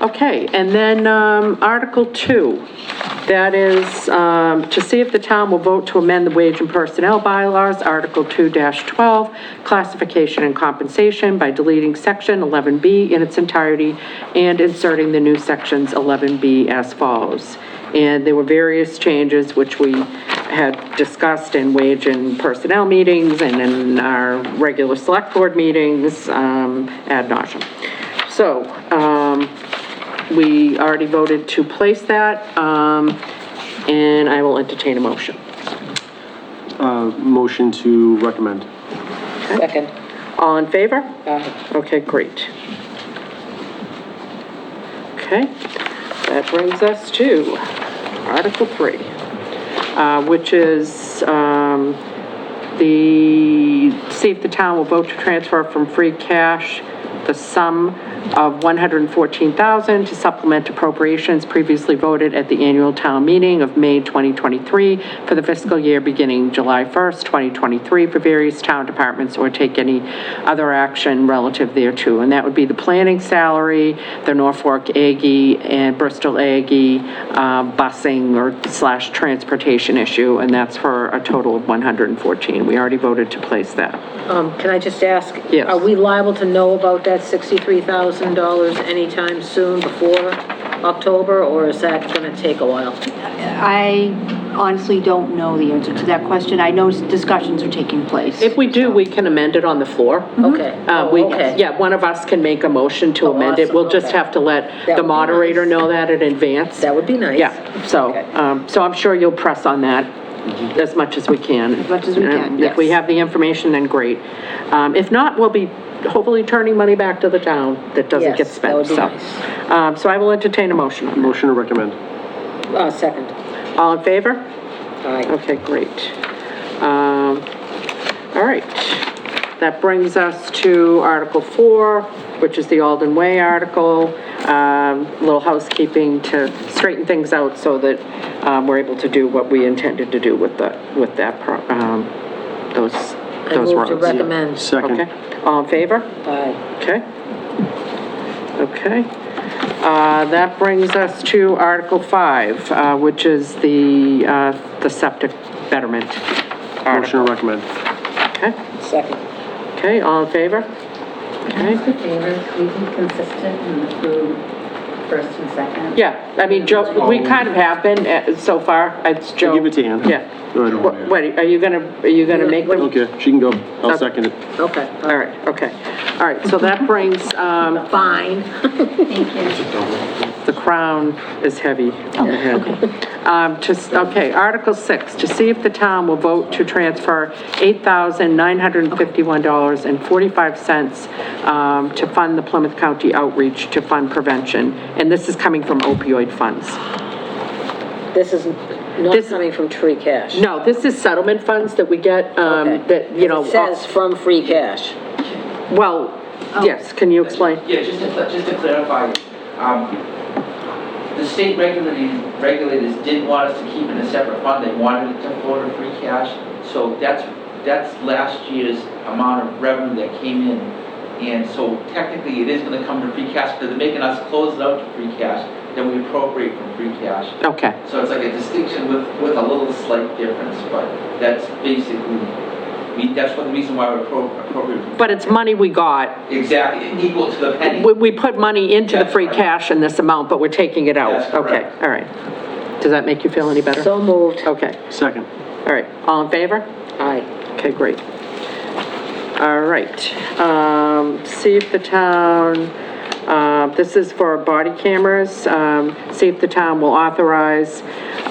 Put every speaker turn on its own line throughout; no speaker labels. Okay, and then um, Article 2, that is um, to see if the town will vote to amend the wage and personnel bylaws, Article 2-12, classification and compensation by deleting Section 11B in its entirety and inserting the new Sections 11B as follows. And there were various changes which we had discussed in wage and personnel meetings and in our regular select board meetings um, ad nauseam. So, um, we already voted to place that, um, and I will entertain a motion.
Uh, Motion to recommend.
Second.
All in favor?
Aye.
Okay, great. Okay, that brings us to Article 3, uh, which is um, the, see if the town will vote to transfer from free cash the sum of 114000 to supplement appropriations previously voted at the annual town meeting of May 2023 for the fiscal year beginning July 1st, 2023, for various town departments, or take any other action relative thereto. And that would be the planning salary, the Norfolk Aggie and Bristol Aggie uh, busing or slash transportation issue, and that's for a total of 114. We already voted to place that.
Um, can I just ask?
Yes.
Are we liable to know about that $63,000 anytime soon before October, or is that gonna take a while?
Mm-hmm.
I honestly don't know the answer to that question. I know discussions are taking place.
If we do, we can amend it on the floor.
Okay.
Uh, we,
Oh, okay.
yeah, one of us can make a motion to
Oh,
amend it. We'll
awesome,
just
okay.
have to let
That
the
would be
moderator
nice.
know that in advance.
That would be nice.
Yeah, so,
Okay.
um, so I'm sure you'll press on that as much as we can. As
much as we can,
If we
yes.
have the information, then great. Um, if not, we'll be hopefully turning money back to the town that doesn't get
Yes, that
spent,
would
so.
be
Um, so I will entertain a motion on
Motion to recommend.
Uh, second.
that. All in favor?
Aye.
Okay, great. Um, All right. That brings us to Article 4, which is the Alden Way article. A Little housekeeping to straighten things out so that um, we're able to do what we intended to do with the, with that, pro- um, those,
I
those
move
roads.
to recommend. uh,
Second.
Okay, all in favor?
Aye.
Okay. Okay. Uh, That brings us to Article 5, uh, which is the, uh, the septic betterment
Motion
article.
to recommend.
Okay,
Second.
okay, all in favor? Okay,
favors, we be consistent and approve first and second?
yeah, I mean, Joe, we kind of have been uh, so far, it's Joe.
give it to Ann.
Yeah.
Go ahead.
Wha- Wait, are you gonna, are you gonna make them?
Okay, she can go. I'll second it.
Okay.
All right, okay, all right, so that brings, um,
Fine.
Thank you.
the crown is heavy on the head. Um, just, okay, Article 6, to see if the town will vote to transfer $8,951.45 um, to fund the Plymouth County outreach to fund prevention, and this is coming from opioid funds.
This is not
This-
coming from free cash.
No, this is settlement funds that we get, um,
Okay.
that, you know, uh,
It says Oh. from free cash.
well, yes, can you explain?
Yeah, just to, cl- just to clarify, um, the state regulators, regulators didn't want us to keep it in a separate fund, they wanted it to flow to free cash. So that's, that's last year's amount of revenue that came in. And so technically, it is gonna come to free cash, because they're making us close it out to free cash, then we appropriate from free cash.
Okay.
So it's like a distinction with, with a little slight difference, but that's basically, we, that's one reason why we're appro- appropriate.
But it's money we got.
Exactly, equal to the penny.
We, we put money into the
That's
free
right.
cash in this amount, but we're taking it out.
That's
Okay,
correct.
all right. Does that make you feel any better?
So moved.
Okay,
Second.
all right, all in favor?
Aye.
Okay, great. All right, um, see if the town, uh, this is for body cameras, um, see if the town will authorize,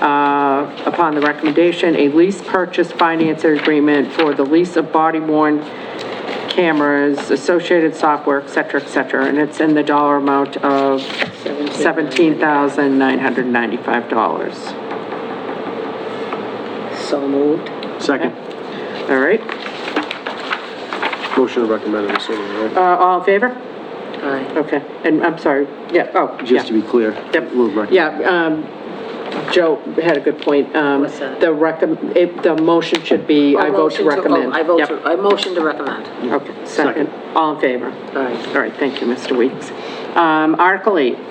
uh, upon the recommendation, a lease purchase financer agreement for the lease of body worn cameras, associated software, et cetera, et cetera, and it's in the dollar amount of $17,995.
So moved.
Second.
All right,
Motion to recommend, I'm assuming, right?
Uh, all in favor?
Aye.
Okay, and I'm sorry, yeah, oh, yeah.
Just to be clear.
Yep.
We'll recommend.
Yeah, um, Joe had a good point. Um,
What's that?
The
Oh,
recom, it, the motion should be, I vote to
Motion vote.
recommend.
I vote
Yep.
to, I motion to recommend.
Okay, second, all in favor?
Aye.
All right, thank you, Mr. Weeks. Um, Article eight,